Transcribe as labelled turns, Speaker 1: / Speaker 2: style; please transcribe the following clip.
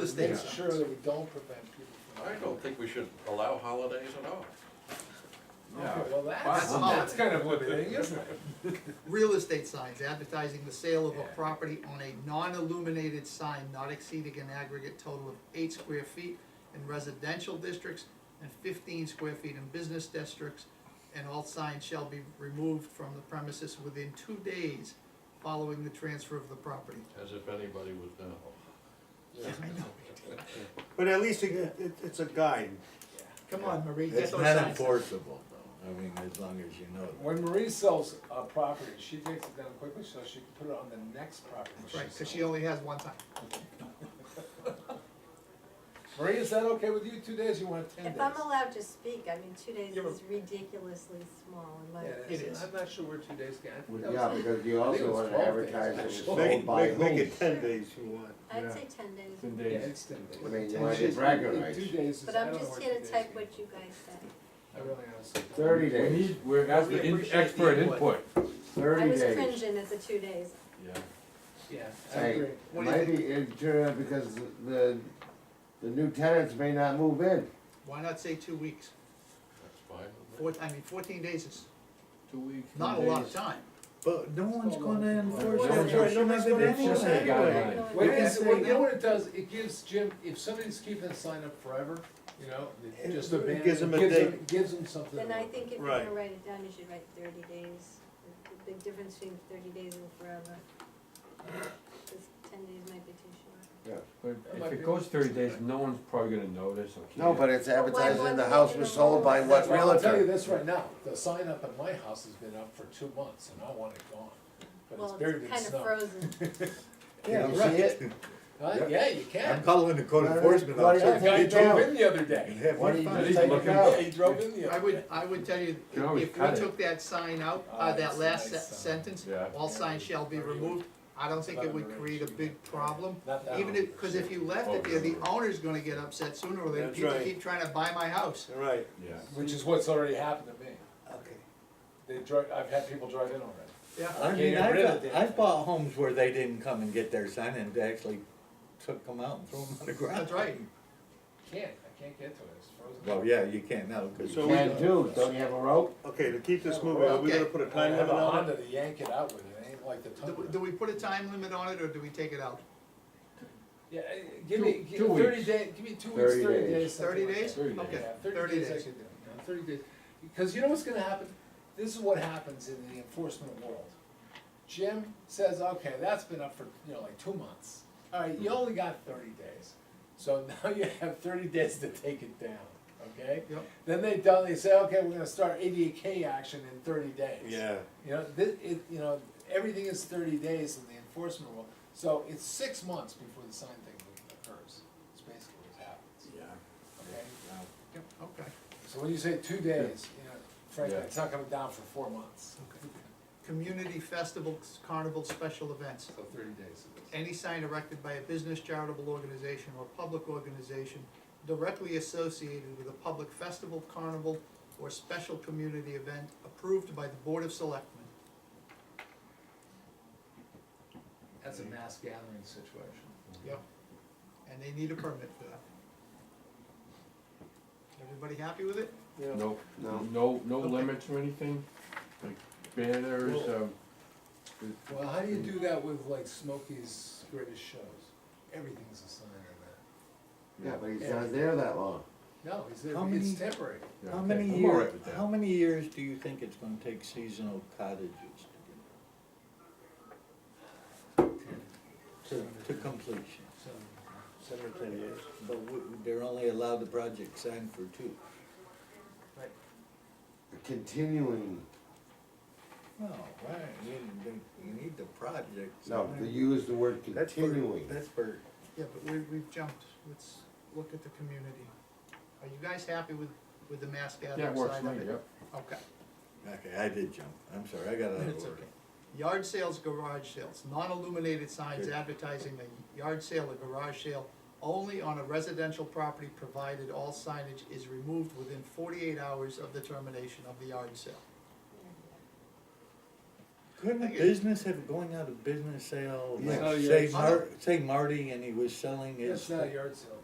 Speaker 1: is the
Speaker 2: Make
Speaker 1: answer.
Speaker 2: sure that we don't prevent people from.
Speaker 3: I don't think we should allow holidays at all.
Speaker 2: Okay, well, that's.
Speaker 1: Wow.
Speaker 2: not-
Speaker 4: That's kind of limiting, isn't it?
Speaker 1: Real estate signs advertising the sale of a
Speaker 4: Yeah.
Speaker 1: property on a non-illuminated sign not exceeding an aggregate total of eight square feet in residential districts and fifteen square feet in business districts, and all signs shall be removed from the premises within two days following the transfer of the property.
Speaker 3: As if anybody would know.
Speaker 1: Yeah, I know.
Speaker 5: But at least it, it, it's a guide.
Speaker 1: Come on, Marie, get
Speaker 6: It's
Speaker 1: those
Speaker 6: not
Speaker 1: signs.
Speaker 6: enforceable though, I mean, as long as you know that.
Speaker 4: When Marie sells a property, she takes it down quickly so she can put it on the next property she
Speaker 1: Right, cause she
Speaker 4: sells.
Speaker 1: only has one time.
Speaker 4: Marie, is that okay with you? Two days, you want ten days?
Speaker 7: If I'm allowed to speak, I mean, two days
Speaker 1: Yeah, but-
Speaker 7: is ridiculously small in my.
Speaker 4: Yeah,
Speaker 1: It is.
Speaker 4: I'm not sure where two days can.
Speaker 8: Yeah, because you also want to advertise it was
Speaker 5: Make,
Speaker 8: sold by
Speaker 5: make,
Speaker 8: who.
Speaker 5: make it ten days if you want.
Speaker 7: I'd say ten days,
Speaker 4: Yeah, it's ten days.
Speaker 8: I mean, you
Speaker 4: Ten
Speaker 8: might
Speaker 4: days,
Speaker 8: brag
Speaker 4: but
Speaker 8: on
Speaker 4: Two
Speaker 8: it.
Speaker 4: days is,
Speaker 7: but
Speaker 4: I
Speaker 7: I'm
Speaker 4: don't know
Speaker 7: just
Speaker 4: where
Speaker 7: here
Speaker 4: two
Speaker 7: to
Speaker 4: days
Speaker 7: type
Speaker 4: is.
Speaker 7: what you guys said.
Speaker 4: I really honestly. don't know.
Speaker 8: Thirty
Speaker 9: We
Speaker 8: days,
Speaker 9: need, we're
Speaker 1: We
Speaker 9: asking
Speaker 1: appreciate the
Speaker 9: expert
Speaker 1: input.
Speaker 9: input.
Speaker 7: I
Speaker 8: thirty
Speaker 7: was
Speaker 8: days.
Speaker 7: cringing at the two days.
Speaker 3: Yeah.
Speaker 4: Yeah, I
Speaker 8: Hey,
Speaker 4: agree.
Speaker 1: What do you think?
Speaker 8: maybe it, uh, because the, the new tenants may not move in.
Speaker 1: Why not say two weeks?
Speaker 3: That's fine. with me.
Speaker 1: Four, I mean, fourteen days is
Speaker 6: Two weeks. two
Speaker 1: not a lot of
Speaker 6: days.
Speaker 1: time.
Speaker 6: But no one's
Speaker 4: Still
Speaker 6: gonna
Speaker 4: not-
Speaker 6: enforce
Speaker 7: Well,
Speaker 6: it,
Speaker 7: sure,
Speaker 6: you shouldn't have it
Speaker 5: it's just
Speaker 6: anyway.
Speaker 5: a
Speaker 9: guideline.
Speaker 7: No,
Speaker 4: What
Speaker 7: no,
Speaker 4: it
Speaker 7: no.
Speaker 4: is, what, you know what it does, it gives Jim, if somebody's keeping a sign up forever, you know, it
Speaker 5: It-
Speaker 4: just
Speaker 5: it
Speaker 4: abandons, gives
Speaker 5: gives 'em a
Speaker 4: them,
Speaker 5: date.
Speaker 4: gives them something.
Speaker 7: Then
Speaker 4: to
Speaker 7: I
Speaker 4: work
Speaker 7: think if you're
Speaker 5: Right.
Speaker 7: gonna write it down, you should write thirty days. The- The big difference between thirty days and forever. Cause ten days might be too short.
Speaker 9: But if it goes thirty days, no one's probably gonna notice or care.
Speaker 8: No, but it's advertised in
Speaker 7: wasn't
Speaker 8: the
Speaker 7: it
Speaker 8: house
Speaker 7: in
Speaker 8: was
Speaker 7: the
Speaker 8: sold by
Speaker 7: rules?
Speaker 8: what
Speaker 4: Well, I'll tell you
Speaker 8: realtor?
Speaker 4: this right now, the sign up at my house has been up for two months and I want it gone, but it's
Speaker 7: Well,
Speaker 4: buried in
Speaker 7: kind of
Speaker 4: snow.
Speaker 7: frozen.
Speaker 8: Can you see it?
Speaker 4: Huh? Yeah, you
Speaker 6: I'm
Speaker 4: can.
Speaker 6: calling the code
Speaker 8: Why don't-
Speaker 6: enforcement
Speaker 8: why
Speaker 4: The
Speaker 8: don't-
Speaker 6: officer.
Speaker 4: guy
Speaker 8: Take it
Speaker 4: drove
Speaker 8: down.
Speaker 4: in the other
Speaker 6: and
Speaker 4: day.
Speaker 6: have
Speaker 8: What do
Speaker 6: fun.
Speaker 8: you
Speaker 9: He's
Speaker 8: just take it
Speaker 9: looking-
Speaker 8: out?
Speaker 4: He drove in the
Speaker 1: I
Speaker 4: other
Speaker 1: would,
Speaker 4: day.
Speaker 1: I would tell you,
Speaker 9: can always
Speaker 1: if we
Speaker 9: cut it.
Speaker 1: took that sign out,
Speaker 4: Oh,
Speaker 1: uh,
Speaker 4: that's
Speaker 1: that
Speaker 4: a
Speaker 1: last
Speaker 4: nice
Speaker 1: se-
Speaker 4: sign.
Speaker 1: sentence,
Speaker 9: Yeah.
Speaker 1: all signs shall be removed, I don't think it would create a big problem.
Speaker 4: Not that
Speaker 1: Even
Speaker 4: one.
Speaker 1: if, cause if you left it there, the owner's gonna get upset sooner or later,
Speaker 5: That's
Speaker 1: people
Speaker 5: right.
Speaker 1: keep trying to buy my house.
Speaker 5: Right,
Speaker 9: Yeah.
Speaker 4: Which is what's already happened to me.
Speaker 5: okay.
Speaker 4: They drive, I've had people drive in already.
Speaker 1: Yeah,
Speaker 6: I mean,
Speaker 4: Get rid of
Speaker 6: I've,
Speaker 4: it.
Speaker 6: I've bought homes where they didn't come and get their sign and actually took them out and threw them on the ground.
Speaker 1: that's right.
Speaker 4: Can't, I can't get to it, it's frozen.
Speaker 6: Well, yeah, you can't now, 'cause-
Speaker 5: So we-
Speaker 8: Can do, don't you have a rope?
Speaker 5: Okay, to keep this moving, are we gonna put a
Speaker 4: I
Speaker 5: time
Speaker 4: have
Speaker 5: limit
Speaker 4: a
Speaker 5: on it?
Speaker 4: Honda to yank it out with, it ain't like the
Speaker 1: Do,
Speaker 4: Tundra.
Speaker 1: do we put a time limit on it or do we take it out?
Speaker 4: Yeah, uh, give me,
Speaker 9: Two-
Speaker 4: give
Speaker 9: two
Speaker 4: thirty
Speaker 9: weeks.
Speaker 4: day, give me two weeks,
Speaker 8: 30
Speaker 4: thirty
Speaker 8: days.
Speaker 4: days,
Speaker 1: Thirty
Speaker 4: something like
Speaker 1: days?
Speaker 4: that.
Speaker 9: Thirty days.
Speaker 1: Okay,
Speaker 4: Yeah,
Speaker 1: thirty
Speaker 4: I
Speaker 1: days.
Speaker 4: could do, you know, thirty days, because you know what's gonna happen, this is what happens in the enforcement world. Jim says, okay, that's been up for, you know, like two months, alright, you only got thirty days, so now you have thirty days to take it down, okay?
Speaker 1: Yep.
Speaker 4: Then they done, they say, okay, we're gonna start ADA K action in thirty days.
Speaker 5: Yeah.
Speaker 4: You know, this, it, you know, everything is thirty days in the enforcement rule, so it's six months before the sign thing occurs, it's basically what happens,
Speaker 6: Yeah.
Speaker 4: okay?
Speaker 1: Okay.
Speaker 4: So when you say two days, you know, frankly,
Speaker 9: Yeah.
Speaker 4: it's not coming down for four months,
Speaker 1: Community festivals, carnival, special events.
Speaker 4: so thirty days.
Speaker 1: any sign erected by a business charitable organization or public organization directly associated with a public festival, carnival, or special community event approved by the Board of Selectmen.
Speaker 4: That's a mass gathering situation.
Speaker 1: Yep. And they need a permit for that. Everybody happy with it?
Speaker 9: No,
Speaker 8: No.
Speaker 9: no, no
Speaker 1: Okay.
Speaker 9: limits or anything, like banners, um,
Speaker 4: Well, how do you do that with like Smokey's greatest shows? Everything's a sign of
Speaker 8: Yeah, but he's not there that long.
Speaker 4: that. No, it's,
Speaker 6: How
Speaker 4: it's
Speaker 6: many-
Speaker 4: temporary.
Speaker 9: yeah,
Speaker 6: How
Speaker 9: okay,
Speaker 6: many
Speaker 9: I'm all right
Speaker 6: years,
Speaker 9: with that.
Speaker 6: how many years do you think it's gonna take seasonal cottages to get? To, to completion,
Speaker 4: So,
Speaker 5: Seven or ten years.
Speaker 6: but we- they're only allowed the project signed for two.
Speaker 8: Continuing,
Speaker 6: No, right, you, they- you need the project.
Speaker 8: no,
Speaker 6: signed.
Speaker 8: they use the word
Speaker 6: That's for-
Speaker 8: continuing.
Speaker 6: That's for,
Speaker 1: Yeah, but we, we've jumped, let's look at the community. Are you guys happy with, with the mass
Speaker 9: Yeah, it
Speaker 1: gathering
Speaker 9: works
Speaker 1: side
Speaker 9: for me,
Speaker 1: of it?
Speaker 9: yep.
Speaker 1: Okay.
Speaker 6: okay, I did jump, I'm sorry, I got out of
Speaker 1: It's
Speaker 6: order.
Speaker 1: okay. Yard sales, garage sales, non-illuminated signs
Speaker 6: Good.
Speaker 1: advertising a yard sale or garage sale only on a residential property provided all signage is removed within forty-eight hours of the termination of the yard sale.
Speaker 6: Couldn't a business have going out of business sale,
Speaker 5: Yeah.
Speaker 6: like, say Mar- say Marty and he was selling his.
Speaker 4: It's not a yard sale.